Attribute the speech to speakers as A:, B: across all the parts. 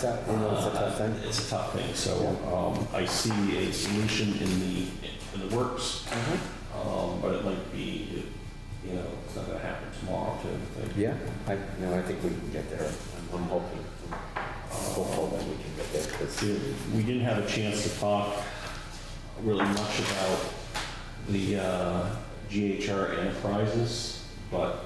A: tough, you know, it's a tough thing.
B: It's a tough thing, so um, I see a solution in the, in the works,
A: Uh-huh.
B: um, but it might be, you know, it's not gonna happen tomorrow to everything.
A: Yeah, I, no, I think we can get there. I'm- I'm hoping, I'm hopeful that we can get there, 'cause-
B: Uh, We didn't have a chance to talk really much about the uh, GHR Enterprises, but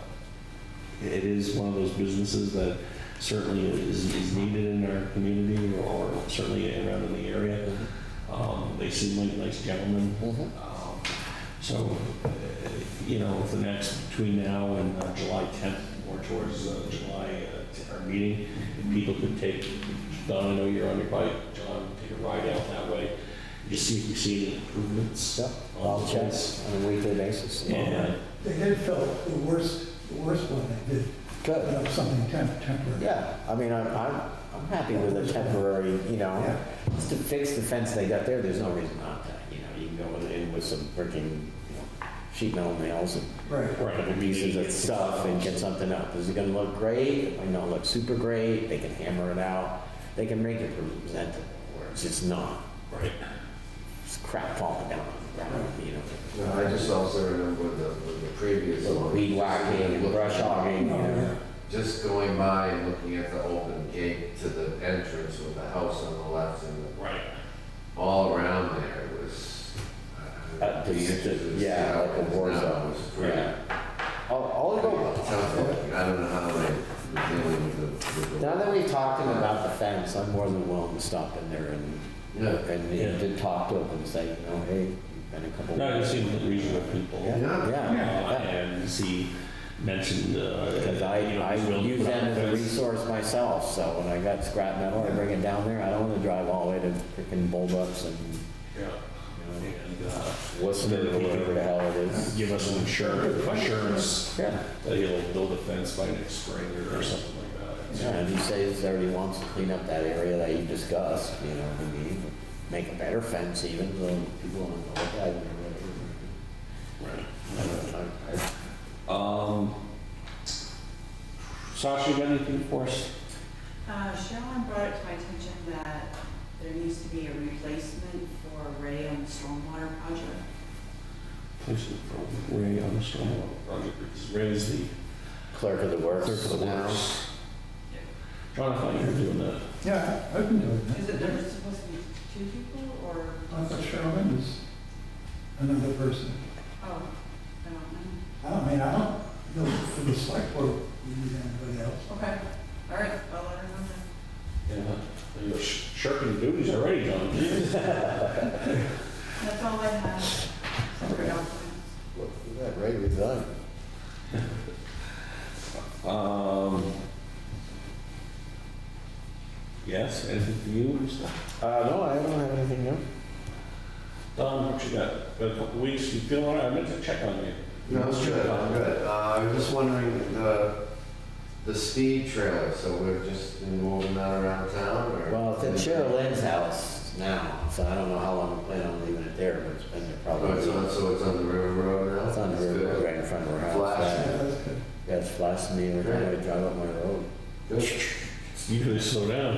B: it is one of those businesses that certainly is is needed in our community or certainly around in the area. Um, They seem like nice gentlemen.
A: Mhm.
B: Um, So, uh, you know, the next, between now and uh, July 10th, or towards uh, July, uh, our meeting, if people could take, Don, I know you're on your bike, John, take a ride out that way, just see if we see any improvements.
A: yeah,
B: on
A: I'll
B: the
A: check
B: place.
A: on a weekly basis.
B: And, uh,
C: They did fill the worst, the worst one they did, put
A: Good,
C: up something temp- temporary.
A: yeah, I mean, I'm, I'm, I'm happy with a temporary, you know,
C: Yeah.
A: just to fix the fence they got there, there's no reason not to, you know, you can go with- in with some freaking, you know, sheet metal nails and
C: Right.
B: Right, I mean,
A: pieces
B: they-
A: of stuff and get something up. Is it gonna look great? It might not look super great. They can hammer it out. They can make it presentable, where it's just not
B: right,
A: just crap falling down on the ground, you know?
D: No, I just also remember the, with the previous
A: Little
D: one.
A: weed whacking and brush hogging, you know?
D: Just going by and looking at the open gate to the entrance with the house on the left and
B: right.
D: all around there was. uh,
A: Uh,
D: the
A: just-
D: entrance was-
A: yeah, like a war
D: now
A: zone.
D: was pretty
A: Yeah. I'll, I'll go,
D: tough. I don't know how they were dealing with the. with the-
A: now that we've talked to them about the fence, I'm more than willing to stop in there and,
D: Yeah.
A: and,
B: Yeah.
A: and to talk to them and say, you know, hey, you've been a couple.
B: No, you seem reasonable people.
A: Yeah,
D: Yeah.
B: Uh,
A: yeah, yeah.
B: And he mentioned, uh.
A: Because I,
B: you know,
A: I
B: he's willing to
A: use
B: put up
A: them as a
B: fence.
A: resource myself, so when I got scrap metal, I bring it down there, I don't wanna drive all the way to freaking Bulldogs and,
B: Yeah.
A: you
B: And, uh,
A: know, Worcester or whatever the hell it is.
B: give us an insurance, assurance
A: Yeah,
B: that he'll build a fence by next spring or something like that.
A: yeah, and he says that he wants to clean up that area that you discussed, you know, what I mean, make a better fence even, so people don't know what that is.
B: Right.
A: I don't know, I- I-
B: Um, Sasha, you got anything for us?
E: Uh, Sharon brought it to my attention that there needs to be a replacement for Ray on the stormwater project.
B: Please, from Ray on the stormwater project, because Ray's the
A: Clerk of the works.
B: clerk of the
A: now.
B: works. John, I thought you were doing that.
C: Yeah, I've been doing
E: Is
C: that.
E: it, there's supposed to be two people or,
C: I thought Sherman was another person.
E: oh, I don't know.
C: I don't mean, I don't, know for the select board, we need anybody else.
E: Okay, all right, I'll let her know
B: Yeah. You're sh- shirking duties already, John.
E: then. That's all I have. Separate out
A: Look at that, Ray resigned.
B: Um, yes, anything for you or stuff?
A: Uh, no, I don't have anything new.
B: Don, what you got? Got a couple weeks, you feel all right? I meant to check on you.
D: No, it's good, I'm good. Uh, I was just wondering, the, the speed trailer, so we're just moving that around town or?
A: Well, it's at Cheryl Lynn's house now, so I don't know how long we plan on leaving it there, but it's been there
D: Oh,
A: probably.
D: it's on,
A: It's
D: so it's on the river road now?
A: on the
D: That's
A: river,
D: good.
A: right in front of her house.
D: Flash.
C: Yeah,
A: yeah.
C: that's good.
A: Yeah, it's flashing me every time I drive up my road.
D: Good.
B: You really slow down.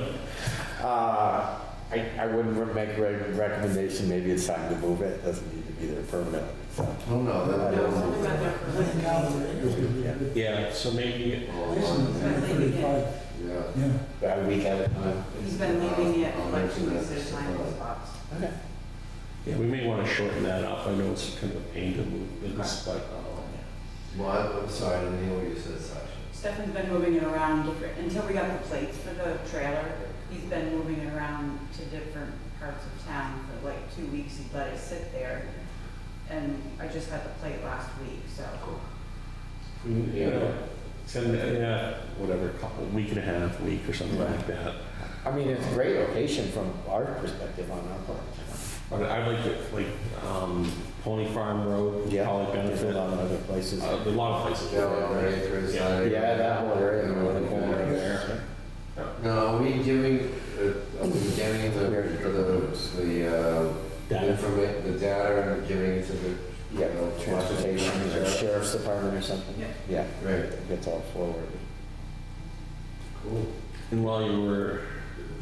A: Uh, I, I wouldn't re- make a recommendation, maybe it's time to move it, doesn't need to be there permanently, so.
D: Oh, no, that,
E: No, it's only about
D: that,
E: that
C: I think now the radio would be
A: Yeah.
C: good.
B: Yeah, so maybe,
C: Jason,
D: oh,
C: the 35,
D: yeah.
C: yeah.
A: About a week at a time.
E: He's been leaving it like two weeks at a time in his box.
A: Okay.
B: yeah, we may want to shorten that up. I know it's kind of a pain to move business, but
D: Well, I'm- I'm sorry, I didn't hear what you said, Sasha.
E: Stefan's been moving it around different, until we got the plates for the trailer, he's been moving it around to different parts of town for like two weeks, he let it sit there. And I just got the plate last week, so.
B: we, you know, send, yeah, whatever, couple, week and a half, week or something like that.
A: I mean, it's a great location from our perspective on our part.
B: But I'd like to, like, um, Pony Farm Road,
A: Yeah.
B: probably
A: There's a
B: benefit.
A: lot of
B: Uh,
A: other places.
B: there are a lot of places.
D: Down on
B: Yeah,
D: Acres.
B: Yeah.
D: I-
A: Yeah, that whole area, the corner
B: there.
A: there.
D: No, are we giving, uh, are we getting the, the, the, uh,
B: Data.
D: informa, the data and giving it to the?
A: Yeah, transportation, or sheriff's department or something.
E: Yeah.
A: Yeah,
D: Right,
A: it gets all forwarded.
D: cool.
B: And while you were